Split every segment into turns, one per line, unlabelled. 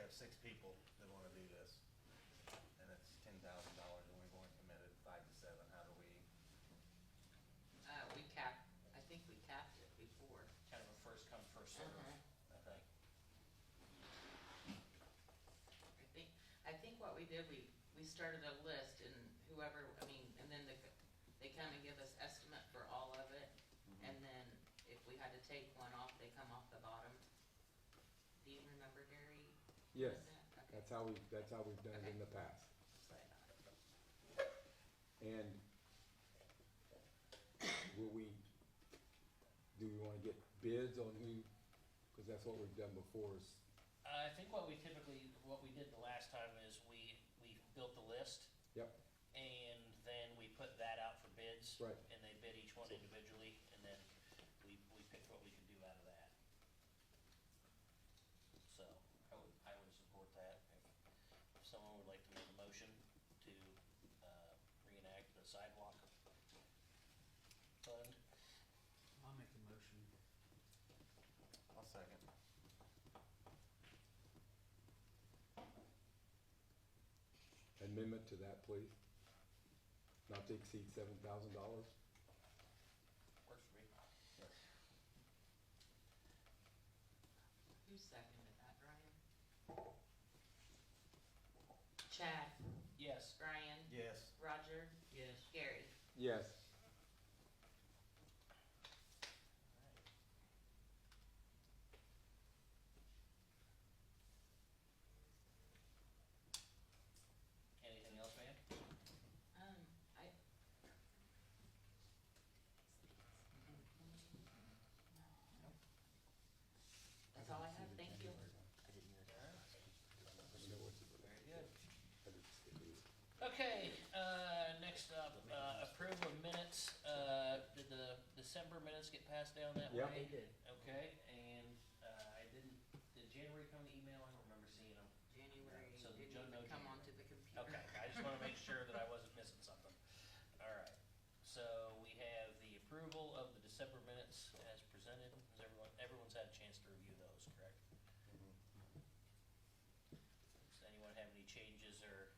have six people that want to do this, and it's ten thousand dollars, and we've only committed five to seven, how do we?
Uh, we capped, I think we capped it before.
kind of a first come, first served.
Uh-huh.
Uh,
Okay.
I think, I think what we did, we, we started a list and whoever, I mean, and then they, they kind of give us estimate for all of it. And then if we had to take one off, they come off the bottom. Do you remember, Gary?
Yes,
Okay.
that's how we, that's how we've done it in the past.
That's what I thought.
And will we, do we wanna get bids on who, cause that's what we've done before is,
I think what we typically, what we did the last time is we, we built the list
yep,
and then we put that out for bids.
Right.
And they bid each one individually and then we, we picked what we could do out of that. So I would, I would support that. If- If someone would like to make a motion to uh, reenact the sidewalk fund,
I'll make a motion.
I'll second.
amendment to that, please. Not to exceed seven thousand dollars.
works for me.
Yes.
Who seconded that, Brian? Chad,
Yes.
Brian,
Yes.
Roger,
Yes.
Gary.
Yes,
Anything else, ma'am?
Um, I. That's all I have, thank you.
Very good. Okay, uh, next up, uh, approval of minutes, uh, did the December minutes get passed down that
Yep.
way?
They did.
Okay, and, uh, I didn't, did January come to email? I don't remember seeing them.
January
So
didn't
Joe
even
knows
come
January.
onto the computer.
Okay, I just wanna make sure that I wasn't missing something. All right, so we have the approval of the December minutes as presented. Has everyone, everyone's had a chance to review those, correct? Does anyone have any changes or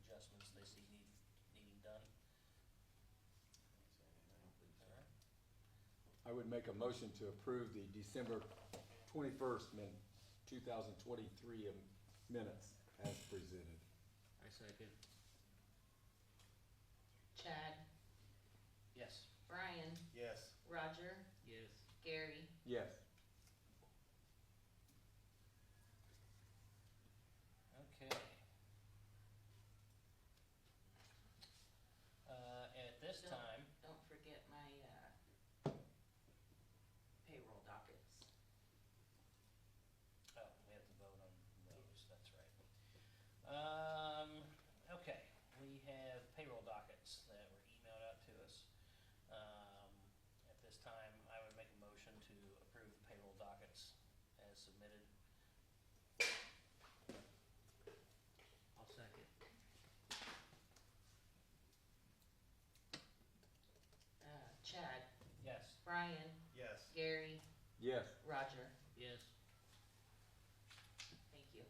adjustments they see need, needing done? All right.
I would make a motion to approve the December twenty-first min, two thousand twenty-three minutes as presented.
I second.
Chad,
Yes.
Brian,
Yes.
Roger,
Yes.
Gary,
Yes,
Okay. Uh, at this
Don't-
time,
don't forget my, uh, payroll dockets.
oh, we have to vote on those, that's right. Um, okay, we have payroll dockets that were emailed out to us. Um, at this time, I would make a motion to approve the payroll dockets as submitted.
I'll second.
Uh, Chad,
Yes.
Brian,
Yes.
Gary,
yes.
Roger,
Yes.
thank you.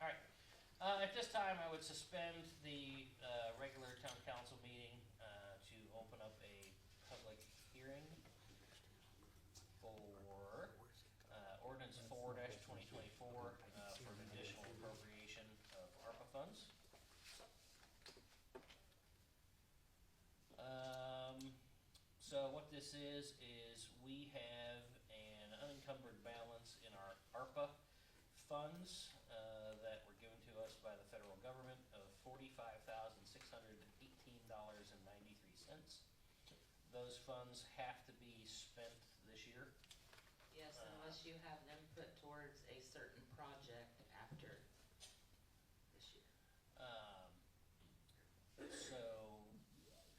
All right. All right, uh, at this time, I would suspend the, uh, regular town council meeting, uh, to open up a public hearing for, uh, ordinance four twenty twenty-four, uh, for an additional appropriation of ARPA funds. Um, so what this is, is we have an unencumbered balance in our ARPA funds uh, that were given to us by the federal government of forty-five thousand, six hundred and eighteen dollars and ninety-three cents. Those funds have to be spent this year.
Yes, unless you have them put towards a certain project after this year.
Um, So,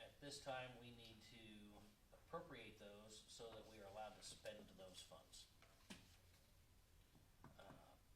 at this time, we need to appropriate those so that we Uh,